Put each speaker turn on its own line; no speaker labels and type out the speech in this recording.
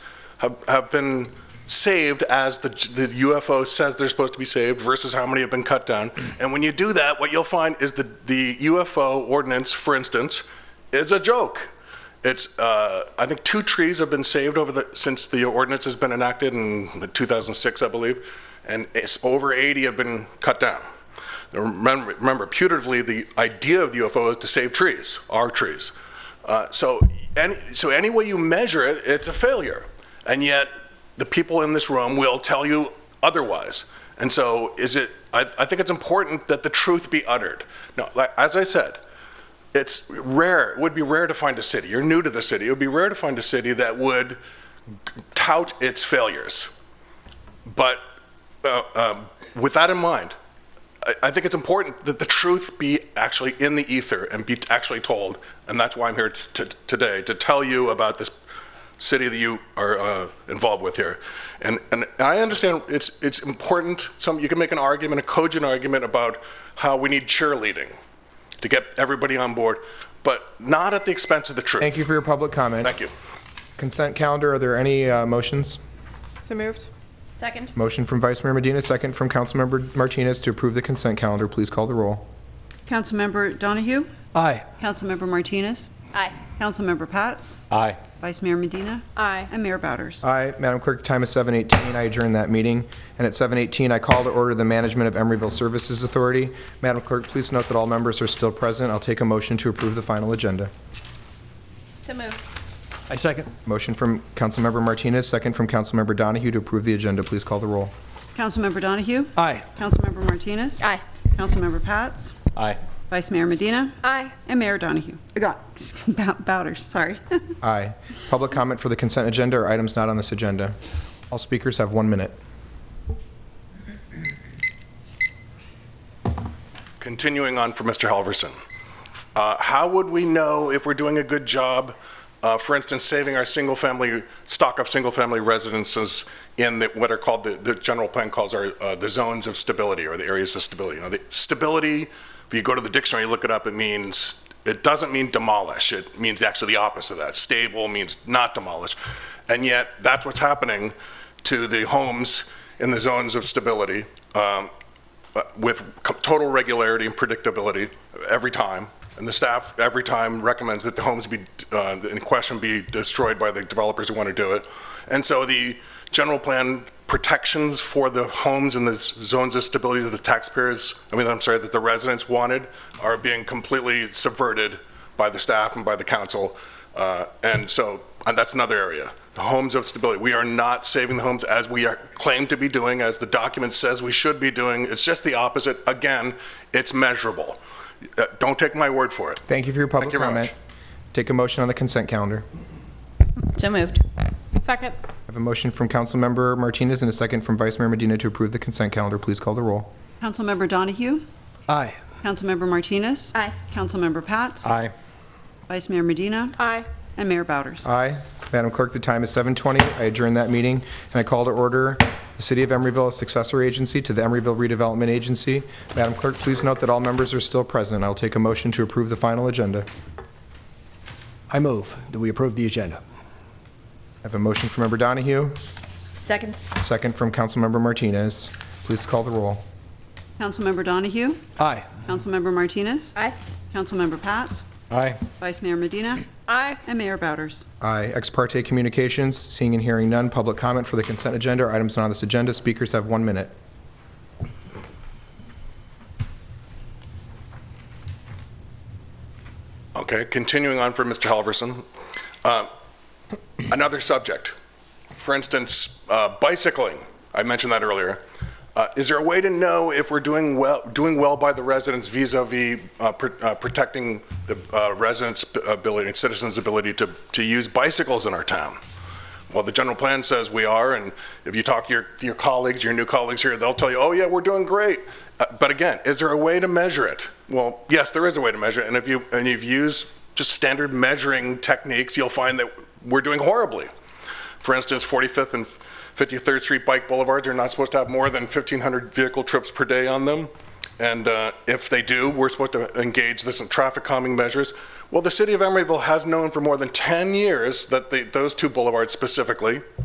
have, have been saved as the, the UFO says they're supposed to be saved versus how many have been cut down. And when you do that, what you'll find is the, the UFO ordinance, for instance, is a joke. It's, uh, I think two trees have been saved over the, since the ordinance has been enacted in 2006, I believe, and it's over 80 have been cut down. Now, Remember, remember, putatively, the idea of the UFO is to save trees, our trees. Uh, so, any, so any way you measure it, it's a failure. And yet, the people in this room will tell you otherwise. And so, is it? I, I think it's important that the truth be uttered. Now, like, as I said, it's rare. It would be rare to find a city. You're new to the city. It would be rare to find a city that would tout its failures. But uh, um, with that in mind, I, I think it's important that the truth be actually in the ether and be actually told. And that's why I'm here t- t- today to tell you about this city that you are uh, involved with here. And, and I understand it's, it's important. Some, you can make an argument, a cogent argument about how we need cheerleading to get everybody on board, but not at the expense of the truth.
Thank you for your public comment.
Thank you.
Consent calendar, are there any uh, motions?
So moved.
Second?
Motion from Vice Mayor Medina, second from Councilmember Martinez to approve the consent calendar. Please call the roll.
Councilmember Donahue?
Aye.
Councilmember Martinez?
Aye.
Councilmember Pats?
Aye.
Vice Mayor Medina?
Aye.
And Mayor Bowders.
Aye. Madam Clerk, the time is 7:18. I adjourn that meeting. And at 7:18, I call to order the management of Emeryville Services Authority. Madam Clerk, please note that all members are still present. I'll take a motion to approve the final agenda.
So moved.
I second.
Motion from Councilmember Martinez, second from Councilmember Donahue to approve the agenda. Please call the roll.
Councilmember Donahue?
Aye.
Councilmember Martinez?
Aye.
Councilmember Pats?
Aye.
Vice Mayor Medina?
Aye.
And Mayor Donahue. I got Bow- Bowders, sorry.
Aye. Public comment for the consent agenda or items not on this agenda. All speakers have one minute.
Continuing on for Mr. Halverson, uh, how would we know if we're doing a good job, uh, for instance, saving our single-family, stock of single-family residences in the, what are called, the, the general plan calls are uh, the zones of stability or the areas of stability? You know, the stability, if you go to the dictionary, look it up, it means, it doesn't mean demolish. It means actually the opposite of that. Stable means not demolish. And yet, that's what's happening to the homes in the zones of stability. Um, uh, with co- total regularity and predictability every time. And the staff every time recommends that the homes be, uh, in question be destroyed by the developers who want to do it. And so the general plan protections for the homes in the s- zones of stability that the taxpayers, I mean, I'm sorry, that the residents wanted are being completely subverted by the staff and by the council. Uh, And so, and that's another area, the homes of stability. We are not saving the homes as we are claimed to be doing, as the document says we should be doing. It's just the opposite. Again, it's measurable. Uh, Don't take my word for it.
Thank you for your public
you very
comment.
much.
Take a motion on the consent calendar.
So moved.
Second.
I have a motion from Councilmember Martinez and a second from Vice Mayor Medina to approve the consent calendar. Please call the roll.
Councilmember Donahue?
Aye.
Councilmember Martinez?
Aye.
Councilmember Pats?
Aye.
Vice Mayor Medina?
Aye.
And Mayor Bowders.
Aye. Madam Clerk, the time is 7:20. I adjourn that meeting, and I call to order the City of Emeryville a successor agency to the Emeryville Redevelopment Agency. Madam Clerk, please note that all members are still present. I'll take a motion to approve the final agenda.
I move that we approve the agenda.
I have a motion from Member Donahue,
Second?
a second from Councilmember Martinez. Please call the roll.
Councilmember Donahue?
Aye.
Councilmember Martinez?
Aye.
Councilmember Pats?
Aye.
Vice Mayor Medina?
Aye.
And Mayor Bowders.
Aye. Ex parte communications, seeing and hearing none. Public comment for the consent agenda or items not on this agenda. Speakers have one minute.
Okay, continuing on for Mr. Halverson. Uh, Another subject, for instance, uh, bicycling, I mentioned that earlier. Uh, Is there a way to know if we're doing well, doing well by the residents vis-à-vis uh, pr- uh, protecting the uh, residents' ability and citizens' ability to, to use bicycles in our town? Well, the general plan says we are, and if you talk to your, your colleagues, your new colleagues here, they'll tell you, oh, yeah, we're doing great. Uh, But again, is there a way to measure it? Well, yes, there is a way to measure it, and if you, and you've used just standard measuring techniques, you'll find that we're doing horribly. For instance, 45th and 53rd Street bike boulevards are not supposed to have more than 1,500 vehicle trips per day on them. And uh, if they do, we're supposed to engage this in traffic calming measures. Well, the city of Emeryville has known for more than 10 years that the, those two boulevards specifically